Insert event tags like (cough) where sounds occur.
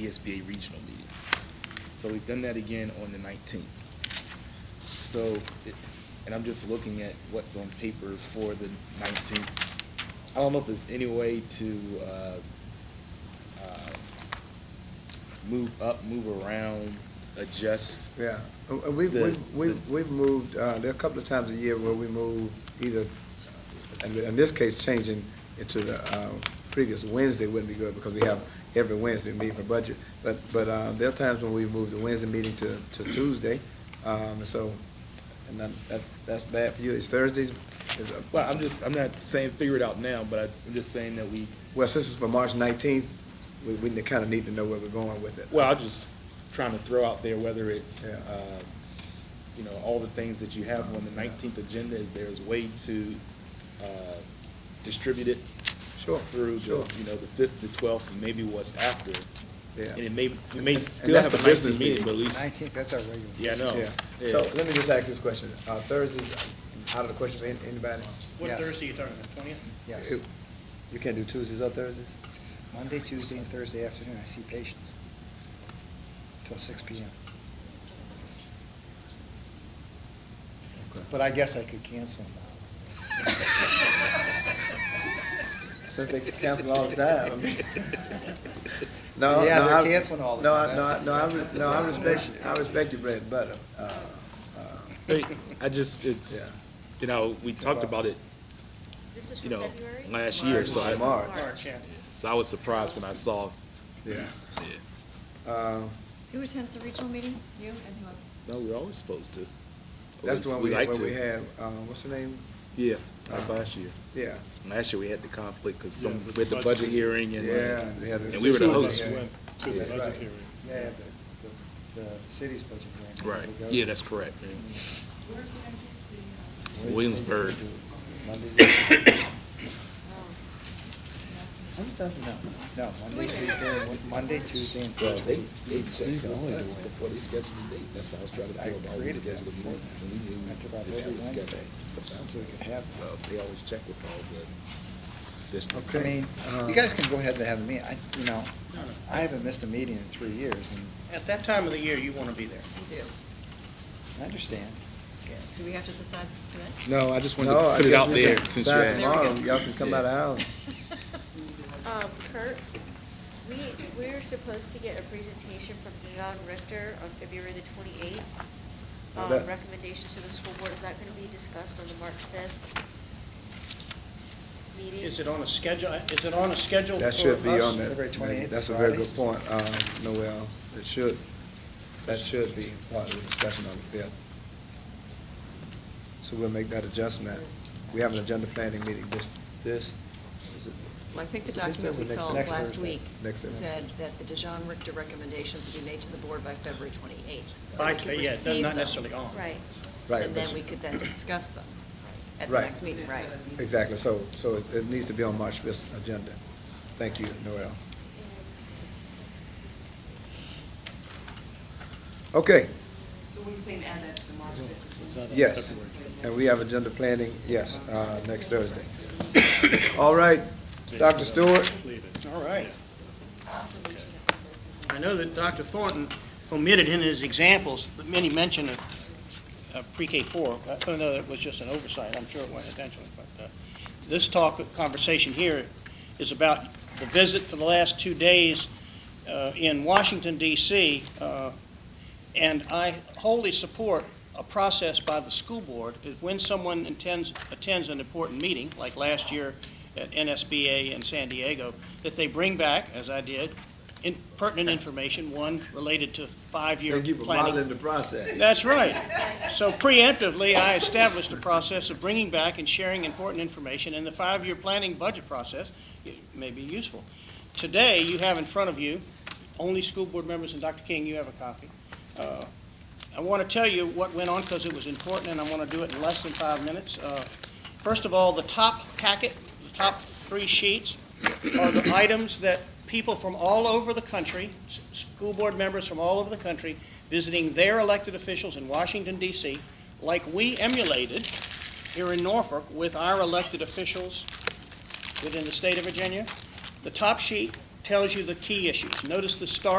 VSBA regional meeting. So we've done that again on the nineteenth. So, it- and I'm just looking at what's on paper for the nineteenth. I don't know if there's any way to, uh, uh, move up, move around, adjust. Yeah, Uh, we've, The- we've, we've the- we've moved, uh, there are a couple of times a year where we move either, and in this case, changing it to the, uh, previous Wednesday wouldn't be good because we have every Wednesday meeting for budget. But, but, uh, there are times when we move the Wednesday meeting to, to Tuesday, um, so, and that, that, that's bad for you. It's Thursdays, is, uh, Well, I'm just, I'm not saying figure it out now, but I- I'm just saying that we, well, since it's for March nineteenth, we, we kind of need to know where we're going with it. well, I'm just trying to throw out there whether it's, Yeah. uh, you know, all the things that you have on the nineteenth agenda, is there's way to, uh, distribute it Sure, through, the, sure, you know, the fifth, the twelfth, and maybe what's after. yeah. And it may, we may And- and still that's have a the business nineteenth meeting, meeting. but at least, Nineteenth, that's our regular. yeah, I know. Yeah, Yeah. so let me just ask this question. Uh, Thursdays, uh, out of the question, an- anybody? What Yes. Thursday you talking, the twentieth? Yes, It- You can't do Tuesdays or Thursdays? Monday, Tuesday, and Thursday afternoon, I see patients till six P M. But I guess I could cancel them. Since they cancel all the time, (laughs) I (laughs) mean. No, Yeah, no, they're I- canceling all the no, I- time. No, I, That's- no, I, re- no, I that's- respect, I respect your bread and butter. Uh, uh, But I just, it's, Yeah. you know, we talked about it, This is you from know, February? last year, so I, March. March, yeah. so I was surprised when I saw, Yeah. yeah. Um, Who attends the regional meeting? You and who else? No, we're always supposed to. That's Always- the one we, like where to. we have, uh, what's her name? Uh, Yeah, like last year. Yeah, Last year we had the conflict because Yeah, some, with we had the the budget. budget hearing and. yeah. they had And we were the Tuesday. host. Yeah. To Yeah. the Right. budget hearing. Yeah, the, the, the city's budget hearing. Right, It goes- yeah, that's correct. yeah. Wednesday, Williamsburg. (coughs) Monday- No, Monday, Tuesday, and- Monday, Tuesday, and Well, Thursday. they scheduled us before they scheduled the date, that's why I was trying I figure out how we created that scheduled the for meeting. And we them. knew I took out that every that was Wednesday, scheduled. so we could have So they always check with all the districts. I mean, uh, um, you guys can go ahead and have the meeting, I, you know, I haven't missed a meeting in three years, and At that time of the year, you want to be there. do. I understand. Do we have to decide this today? No, I just wanted No, to I put it guess out we there can since you decide asked. tomorrow. Y'all can come Yeah. out of the house. Um, Kurt, we, we're supposed to get a presentation from John Richter on February the twenty-eighth. Is Um, that- recommendation to the school board, is that gonna be discussed on the March fifth meeting? Is it on a schedule, is it on a schedule for That us? should be on that. February 28th, That's a very Friday. good point, um, Noel. It should, that should be part of the discussion on the fifth. So we'll make that adjustment. We have an agenda planning meeting this, this. is it- Well, I think the is it this document we Thursday or saw next last Thursday? week Next Thursday. said that the DeJean Richter recommendations would be made to the board by February 28th. By- So we could yeah, receive not them, necessarily on. Right. Right, And but- then we could then discuss them at the Right. next meeting, right? Exactly, so, so it, it needs to be on March fifth agenda. Thank you, Noel. Okay, So we can add that to the March fifth. Is that on yes. February? And we have agenda planning, yes, uh, next Thursday. (coughs) All right, Dr. Stewart? Leave it. All right. I know that Dr. Thornton omitted in his examples, but many mention of, of uh, pre-K four. I don't know, that was just an oversight, I'm sure it wasn't intentional, but, uh, this talk, conversation here is about the visit for the last two days, uh, in Washington DC, uh, and I wholly support a process by the school board, is when someone attends, attends an important meeting, like last year at NSBA in San Diego, that they bring back, as I did, in- pertinent information, one related to five-year Thank you for planning. modeling the process. That's right. So preemptively, I established a process of bringing back and sharing important information, and the five-year planning budget process it may be useful. Today, you have in front of you, only school board members, and Dr. King, you have a copy. Uh, I want to tell you what went on because it was important, and I want to do it in less than five minutes. Uh, First of all, the top packet, the top three sheets are the items that people from all over the country, s- school board members from all over the country, visiting their elected officials in Washington, D.C., like we emulated here in Norfolk with our elected officials within the state of Virginia. The top sheet tells you the key issues. Notice the star